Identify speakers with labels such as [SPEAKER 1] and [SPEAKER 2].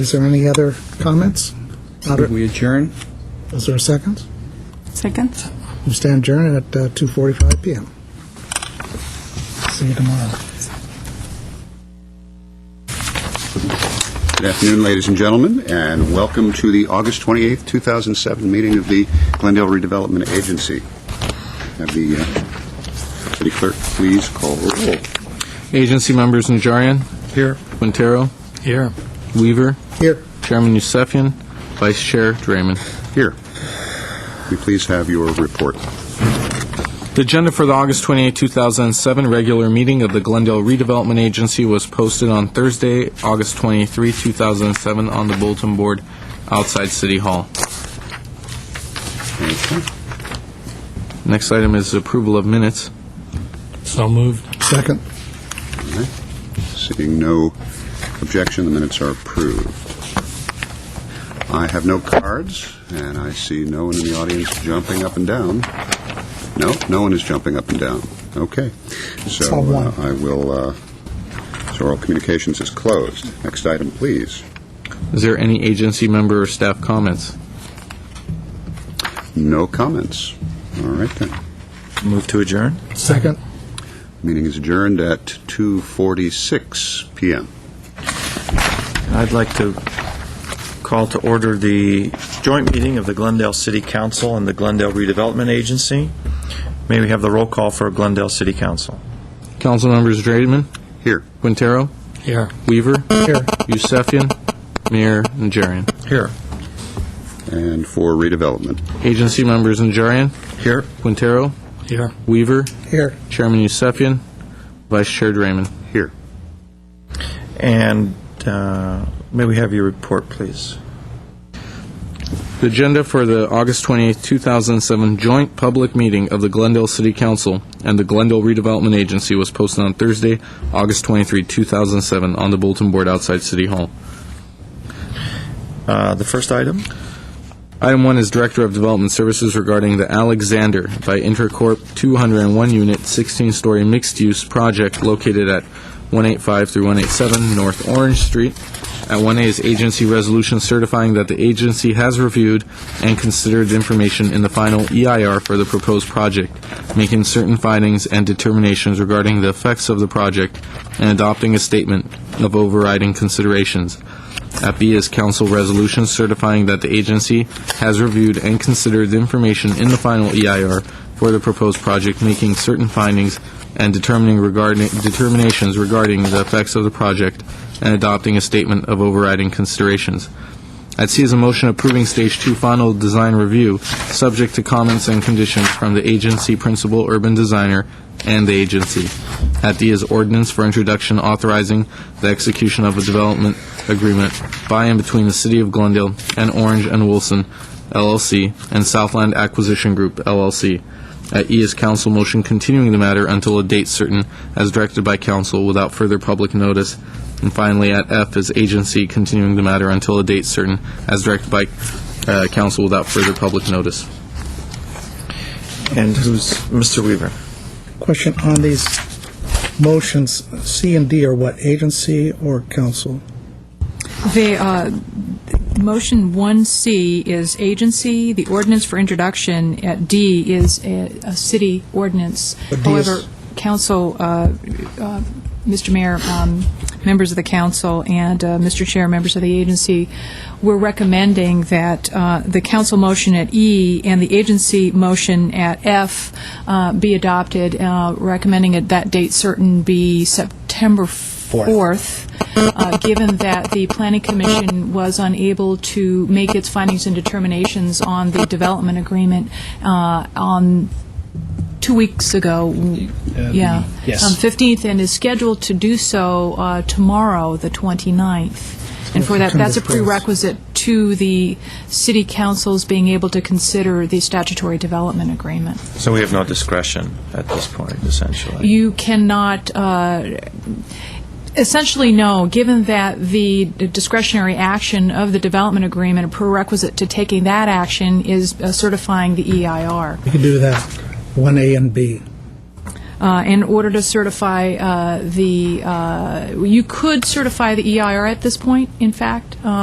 [SPEAKER 1] Is there any other comments? Not-
[SPEAKER 2] We adjourn?
[SPEAKER 1] Is there a second?
[SPEAKER 3] Second?
[SPEAKER 1] We stand adjourned at uh, 2:45 PM. See you tomorrow.
[SPEAKER 4] Good afternoon, ladies and gentlemen, and welcome to the August 28th, 2007 meeting of the Glendale Redevelopment Agency. Have the uh, city clerk please call the roll.
[SPEAKER 5] Agency members Najarian. Here. Quintero. Here. Weaver.
[SPEAKER 1] Here.
[SPEAKER 5] Chairman Yusefian. Vice Chair Draymond.
[SPEAKER 4] Here. We please have your report.
[SPEAKER 5] The agenda for the August 28, 2007 regular meeting of the Glendale Redevelopment Agency was posted on Thursday, August 23, 2007, on the bulletin board outside City Hall. Next item is approval of minutes.
[SPEAKER 6] So moved.
[SPEAKER 1] Second.
[SPEAKER 4] Seeing no objection, the minutes are approved. I have no cards, and I see no one in the audience jumping up and down. No, no one is jumping up and down. Okay.
[SPEAKER 1] all
[SPEAKER 4] So
[SPEAKER 1] one.
[SPEAKER 4] uh, I will, uh, so oral communications is closed. Next item, please.
[SPEAKER 5] Is there any agency member or staff comments?
[SPEAKER 4] No comments. All right then.
[SPEAKER 2] Move to adjourn?
[SPEAKER 1] Second.
[SPEAKER 4] Meeting is adjourned at 2:46 PM.
[SPEAKER 2] I'd like to call to order the joint meeting of the Glendale City Council and the Glendale Redevelopment Agency. May we have the roll call for Glendale City Council?
[SPEAKER 5] Council members Draymond.
[SPEAKER 4] Here.
[SPEAKER 5] Quintero.
[SPEAKER 6] Here.
[SPEAKER 5] Weaver.
[SPEAKER 1] Here.
[SPEAKER 5] Yusefian. Mayor Najarian.
[SPEAKER 2] Here.
[SPEAKER 4] And for redevelopment.
[SPEAKER 5] Agency members Najarian,
[SPEAKER 2] Here.
[SPEAKER 5] Quintero,
[SPEAKER 6] Here.
[SPEAKER 5] Weaver,
[SPEAKER 1] Here.
[SPEAKER 5] Chairman Yusefian, Vice Chair Draymond.
[SPEAKER 4] Here.
[SPEAKER 2] And uh, may we have your report, please?
[SPEAKER 5] The agenda for the August 28, 2007 joint public meeting of the Glendale City Council and the Glendale Redevelopment Agency was posted on Thursday, August 23, 2007, on the bulletin board outside City Hall.
[SPEAKER 2] Uh, The first item?
[SPEAKER 5] Item one is Director of Development Services regarding the Alexander by Intercorp 201 unit, 16-story mixed-use project located at 185 through 187 North Orange Street. At 1A is agency resolution certifying that the agency has reviewed and considered information in the final EIR for the proposed project, making certain findings and determinations regarding the effects of the project, and adopting a statement of overriding considerations. At B is council resolution certifying that the agency has reviewed and considered the information in the final EIR for the proposed project, making certain findings and determining regarding, determinations regarding the effects of the project, and adopting a statement of overriding considerations. At C is a motion approving Stage 2 final design review, subject to comments and conditions from the agency principal urban designer and the agency. At D is ordinance for introduction authorizing the execution of a development agreement by and between the City of Glendale and Orange and Wilson LLC and Southland Acquisition Group LLC. At E is council motion continuing the matter until a date certain as directed by council without further public notice. And finally, at F is agency continuing the matter until a date certain as directed by uh, council without further public notice.
[SPEAKER 2] And who's, Mr. Weaver?
[SPEAKER 1] Question on these motions, C and D are what, agency or council?
[SPEAKER 3] The, uh, motion 1C is agency, the ordinance for introduction at D is a, a city ordinance.
[SPEAKER 1] But D is-
[SPEAKER 3] However, council, uh, uh, Mr. Mayor, um, members of the council, and uh, Mr. Chair, members of the agency, we're recommending that uh, the council motion at E and the agency motion at F uh, be adopted, uh, recommending that that date certain be September 4th, uh, given that the Planning Commission was unable to make its findings and determinations on the development agreement uh, on two weeks ago, yeah.
[SPEAKER 6] yes.
[SPEAKER 3] Um, 15th, and is scheduled to do so uh, tomorrow, the 29th. And for that, that's a
[SPEAKER 1] September 4th.
[SPEAKER 3] prerequisite to the city council's being able to consider the statutory development agreement.
[SPEAKER 2] So we have no discretion at this point, essentially.
[SPEAKER 3] You cannot, uh, essentially, no, given that the discretionary action of the development agreement, a prerequisite to taking that action is uh, certifying the EIR.
[SPEAKER 1] You can do that, 1A and B.
[SPEAKER 3] uh, in order to certify E uh, the, uh, you could certify the EIR at this point, in fact, uh,